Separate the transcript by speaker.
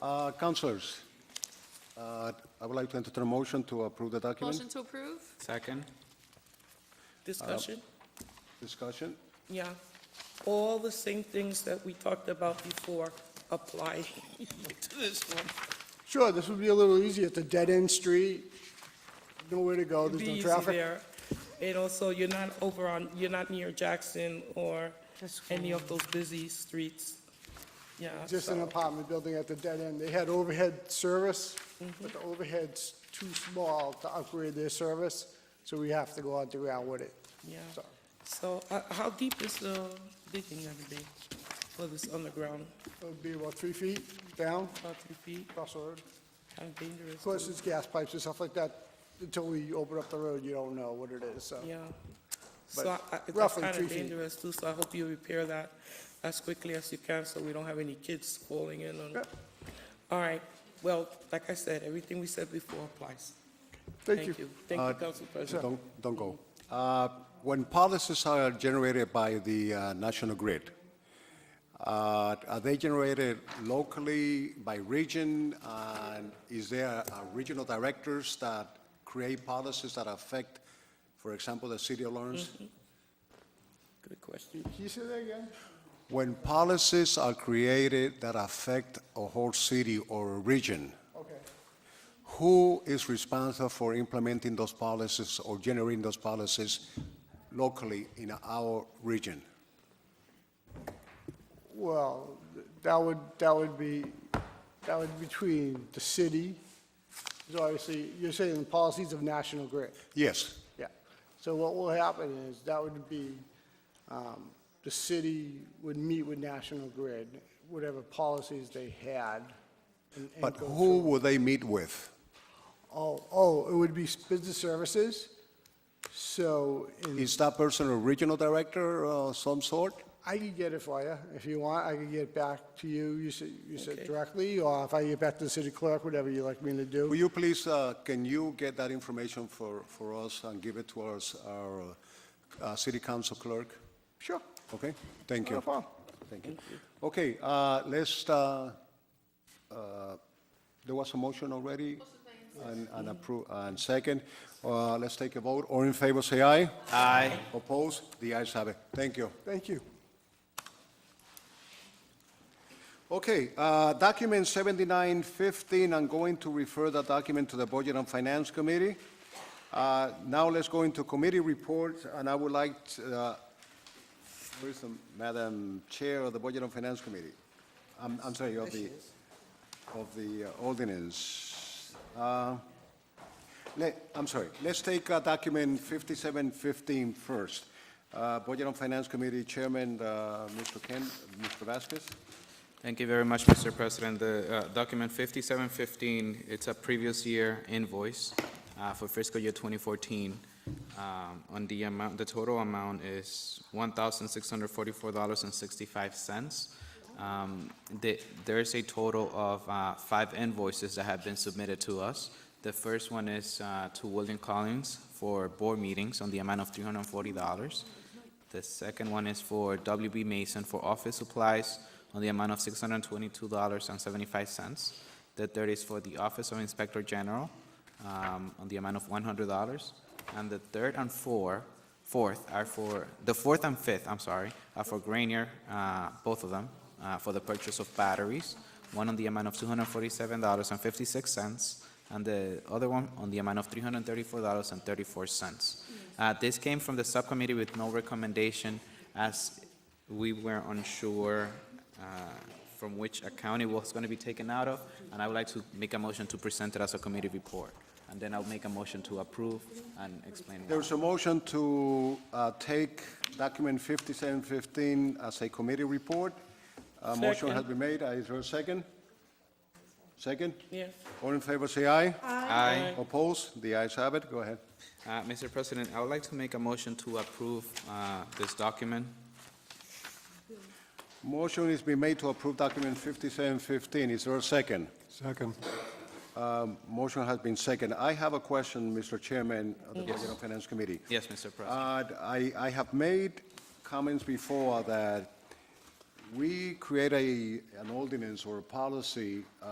Speaker 1: Uh, Councilors, uh, I would like to entertain a motion to approve the document.
Speaker 2: Motion to approve?
Speaker 3: Second?
Speaker 4: Discussion?
Speaker 1: Discussion?
Speaker 4: Yeah. All the same things that we talked about before apply to this one.
Speaker 5: Sure, this would be a little easier. It's a dead-end street, nowhere to go,
Speaker 4: It'd
Speaker 5: there's
Speaker 4: be
Speaker 5: no
Speaker 4: easy
Speaker 5: traffic.
Speaker 4: there. And also, you're not over on, you're not near Jackson or any of those busy streets. Yeah.
Speaker 5: Just an
Speaker 4: so-
Speaker 5: apartment building at the dead end. They had overhead service,
Speaker 4: Mm-hmm.
Speaker 5: but the overhead's too small to upgrade their service, so we have to go out the ground with it.
Speaker 4: Yeah.
Speaker 5: So-
Speaker 4: So uh, how deep is the digging gonna be for this underground?
Speaker 5: It'll be about three feet down,
Speaker 4: About three feet?
Speaker 5: across the road.
Speaker 4: Kind of dangerous.
Speaker 5: Of course, it's gas pipes and stuff like that. Until we open up the road, you don't know what it is, so.
Speaker 4: Yeah.
Speaker 5: But
Speaker 4: So I- I- that's
Speaker 5: roughly
Speaker 4: kind
Speaker 5: three
Speaker 4: of
Speaker 5: feet.
Speaker 4: dangerous too, so I hope you repair that as quickly as you can, so we don't have any kids falling in on.
Speaker 5: Yep.
Speaker 4: All right, well, like I said, everything we said before applies.
Speaker 5: Thank you.
Speaker 4: Thank you, Council President.
Speaker 1: Don't, don't go. Uh, When policies are generated by the uh, National Grid, uh, are they generated locally by region? And is there uh, regional directors that create policies that affect, for example, the city of Lawrence?
Speaker 4: Good question.
Speaker 5: Can you say that again?
Speaker 1: When policies are created that affect a whole city or a region,
Speaker 5: Okay.
Speaker 1: who is responsible for implementing those policies or generating those policies locally in our region?
Speaker 5: Well, th- that would, that would be, that would be between the city, so obviously, you're saying the policies of National Grid.
Speaker 1: Yes,
Speaker 5: Yeah. So what will happen is, that would be, um, the city would meet with National Grid, whatever policies they had. and- and
Speaker 1: but
Speaker 5: go
Speaker 1: who
Speaker 5: through.
Speaker 1: will they meet with?
Speaker 5: Oh, oh, it would be business services, so. in-
Speaker 1: Is that person a regional director of some sort?
Speaker 5: I could get it for you, if you want, I could get it back to you, you said, you said
Speaker 4: Okay.
Speaker 5: directly, or if I get back to the city clerk, whatever you like me to
Speaker 1: Will
Speaker 5: do.
Speaker 1: you please, uh, can you get that information for, for us and give it to us, our uh, city council clerk?
Speaker 5: Sure,
Speaker 1: Okay, thank you.
Speaker 5: no problem.
Speaker 1: Thank you. Okay, uh, let's, uh, uh, there was a motion already, and and approve, and second. Uh, Let's take a vote. All in favor, say aye.
Speaker 3: Aye.
Speaker 1: Opposed? The ayes have it. Thank you.
Speaker 5: Thank you.
Speaker 1: Okay, uh, document 7915, I'm going to refer that document to the Budget and Finance Committee. Uh, Now let's go into committee reports, and I would like, to, uh, where is the Madam Chair of the Budget and Finance Committee? I'm I'm sorry, of the, of the uh, ordinance. Uh, let- I'm sorry, let's take uh, document 5715 first. Uh, Budget and Finance Committee Chairman, uh, Mr. Ken, Mr. Vasquez?
Speaker 3: Thank you very much, Mr. President. The uh, document 5715, it's a previous year invoice uh, for fiscal year 2014. Um, On the amount, the total amount is $1,644.65. Um, the- There is a total of uh, five invoices that have been submitted to us. The first one is uh, to William Collins for board meetings on the amount of $340. The second one is for WB Mason for office supplies on the amount of $622.75. The third is for the Office of Inspector General um, on the amount of $100. And the third and four, fourth are for, the fourth and fifth, I'm sorry, are for Granier, uh, both of them, uh, for the purchase of batteries, one on the amount of $247.56, and the other one on the amount of $334.34. Uh, This came from the subcommittee with no recommendation, as we were unsure uh, from which account it was going to be taken out of, and I would like to make a motion to present it as a committee report, and then I'll make a motion to approve and explain why.
Speaker 1: There's a motion to uh, take document 5715 as a committee report. A motion has been
Speaker 4: Second.
Speaker 1: made. Uh, Is there a second? Second?
Speaker 4: Yes.
Speaker 1: All in favor, say aye.
Speaker 3: Aye.
Speaker 1: Opposed? The ayes have it. Go ahead.
Speaker 3: Uh, Mr. President, I would like to make a motion to approve uh, this document.
Speaker 1: Motion is being made to approve document 5715. Is there a second? Um,
Speaker 5: Second.
Speaker 1: Motion has been second. I have a question, Mr. Chairman of the Budget and Finance Committee.
Speaker 3: Yes, Mr. President.
Speaker 1: Uh, I, I have made comments before that we create a, an ordinance or a policy uh,